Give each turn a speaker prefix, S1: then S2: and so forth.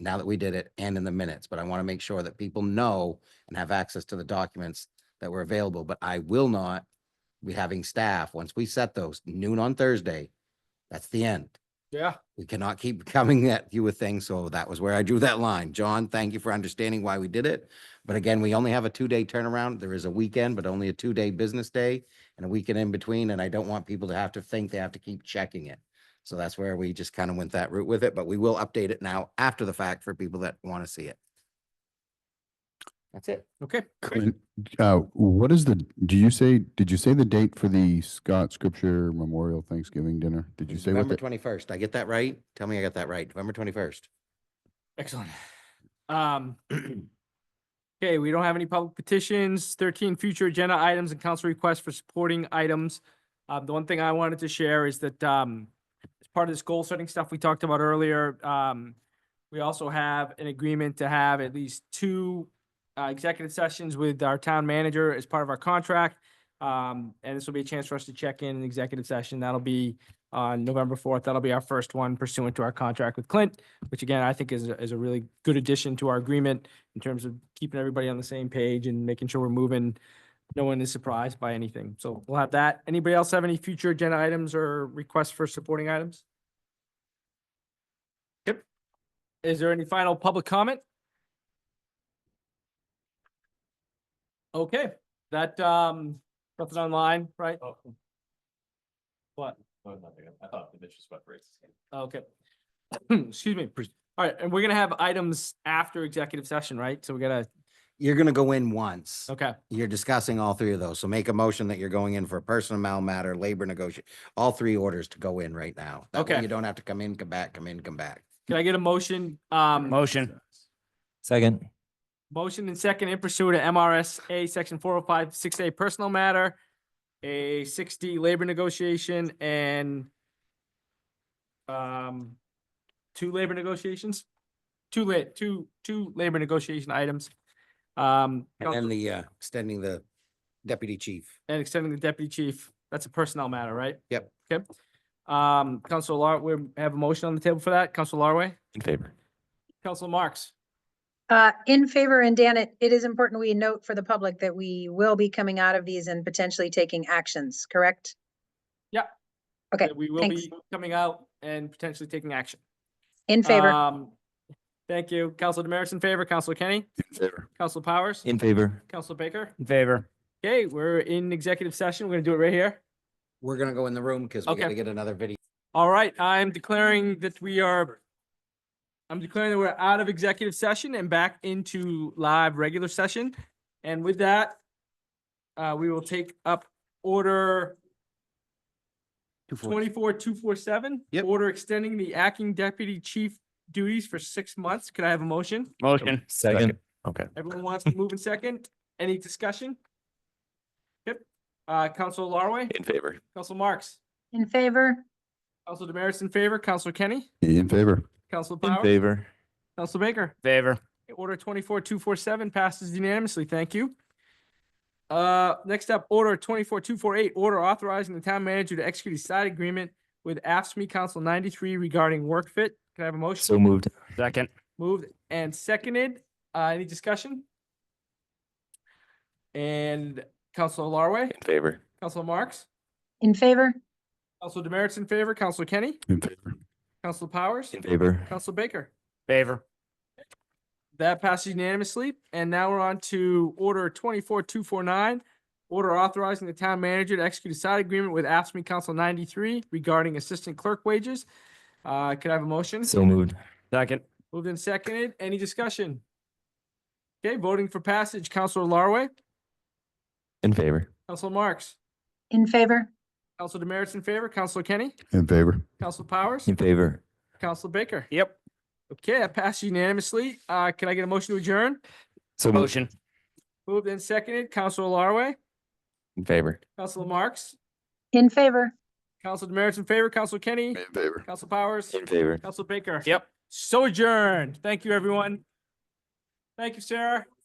S1: now that we did it and in the minutes, but I want to make sure that people know and have access to the documents that were available, but I will not be having staff, once we set those noon on Thursday, that's the end.
S2: Yeah,
S1: We cannot keep coming at you with things, so that was where I drew that line. John, thank you for understanding why we did it. But again, we only have a two-day turnaround. There is a weekend, but only a two-day business day and a weekend in between, and I don't want people to have to think they have to keep checking it. So that's where we just kind of went that route with it, but we will update it now after the fact for people that want to see it. That's it.
S2: okay. great.
S3: Clint, uh, what is the, do you say, did you say the date for the Scott Scripture Memorial Thanksgiving Dinner? Did you
S1: It's
S3: say what
S1: November
S3: the,
S1: twenty-first. I get that right? Tell me I got that right. November twenty-first.
S2: Excellent. Um, okay, we don't have any public petitions, thirteen future agenda items and council requests for supporting items. Um, the one thing I wanted to share is that, um, as part of this goal setting stuff we talked about earlier, um, we also have an agreement to have at least two uh, executive sessions with our town manager as part of our contract. Um, and this will be a chance for us to check in an executive session. That'll be on November fourth. That'll be our first one pursuant to our contract with Clint which again, I think is, a- is a really good addition to our agreement in terms of keeping everybody on the same page and making sure we're moving. No one is surprised by anything. So we'll have that. Anybody else have any future agenda items or requests for supporting items? Yep. Is there any final public comment? Okay, that, um, nothing online, right? What?
S4: Oh, nothing. I thought the bitch was sweat rates.
S2: Okay. Excuse me. pres- All right, and we're gonna have items after executive session, right? So we gotta,
S1: You're gonna go in once.
S2: okay,
S1: You're discussing all three of those, so make a motion that you're going in for a personnel matter, labor negotiation, all three orders to go in right now. That way
S2: Okay.
S1: You don't have to come in, come back, come in, come back.
S2: can I get a motion? Um,
S5: Motion. Second.
S2: motion and second in pursuit of MRSA section four oh five, six A personal matter, a six D labor negotiation and um, two labor negotiations, two la- two, two labor negotiation items. Um,
S1: And then the, uh, extending the deputy chief.
S2: and extending the deputy chief, that's a personnel matter, right?
S1: Yep.
S2: Okay. Um, Council Lar, we have a motion on the table for that. Council Larway,
S5: In favor.
S2: Council Marks.
S6: Uh, in favor, and Dan, it, it is important we note for the public that we will be coming out of these and potentially taking actions, correct?
S2: Yep.
S6: Okay,
S2: that We will
S6: thanks.
S2: be coming out and potentially taking action.
S6: in favor,
S2: Um, Thank you. Council Demerits in favor, Council Kenny,
S3: in favor?
S2: Council Powers,
S5: In favor.
S2: Council Baker.
S5: In favor.
S2: Okay, we're in executive session. We're gonna do it right here.
S1: We're gonna go in the room because we
S2: Okay.
S1: gotta get another video.
S2: All right, I'm declaring that we are, I'm declaring that we're out of executive session and back into live regular session. And with that, uh, we will take up order twenty-four, two, four, seven.
S1: Yep.
S2: Order extending the acting deputy chief duties for six months. Could I have a motion?
S5: Motion. Second. Okay.
S2: Everyone wants to move in second. Any discussion? Yep. Uh, Council Larway,
S5: In favor.
S2: Council Marks,
S6: in favor,
S2: Council Demerits in favor, Council Kenny,
S3: In favor.
S2: Council
S5: In
S2: Power,
S5: favor.
S2: Council Baker.
S5: Favor.
S2: Order twenty-four, two, four, seven passes unanimously. Thank you. Uh, next up, order twenty-four, two, four, eight, order authorizing the town manager to execute a side agreement with AFSMI Council ninety-three regarding work fit. Can I have a motion?
S5: So moved. Second.
S2: Moved and seconded. Uh, any discussion? And Council Larway,
S5: In favor.
S2: Council Marks,
S6: in favor,
S2: Council Demerits in favor, Council Kenny,
S3: In favor.
S2: Council Powers,
S5: In favor.
S2: Council Baker.
S5: Favor.
S2: That passes unanimously. And now we're on to order twenty-four, two, four, nine. Order authorizing the town manager to execute a side agreement with AFSMI Council ninety-three regarding assistant clerk wages. Uh, could I have a motion?
S5: So moved. Second.
S2: Moved and seconded. Any discussion? Okay, voting for passage, Counselor Larway,
S5: In favor.
S2: Counselor Marks,
S6: in favor,
S2: Counselor Demerits in favor, Counselor Kenny,
S3: In favor.
S2: Counselor Powers,
S5: In favor.
S2: Counselor Baker.
S5: Yep.
S2: Okay, that passed unanimously. Uh, can I get a motion to adjourn?
S5: So motion.
S2: Moved and seconded, Counselor Larway,
S5: In favor.
S2: Counselor Marks,
S6: in favor,
S2: Council Demerits in favor, Council Kenny,
S3: In favor.
S2: Council Powers,
S5: favor.
S2: Council Baker.
S5: Yep.
S2: So adjourned. Thank you, everyone. Thank you, Sarah.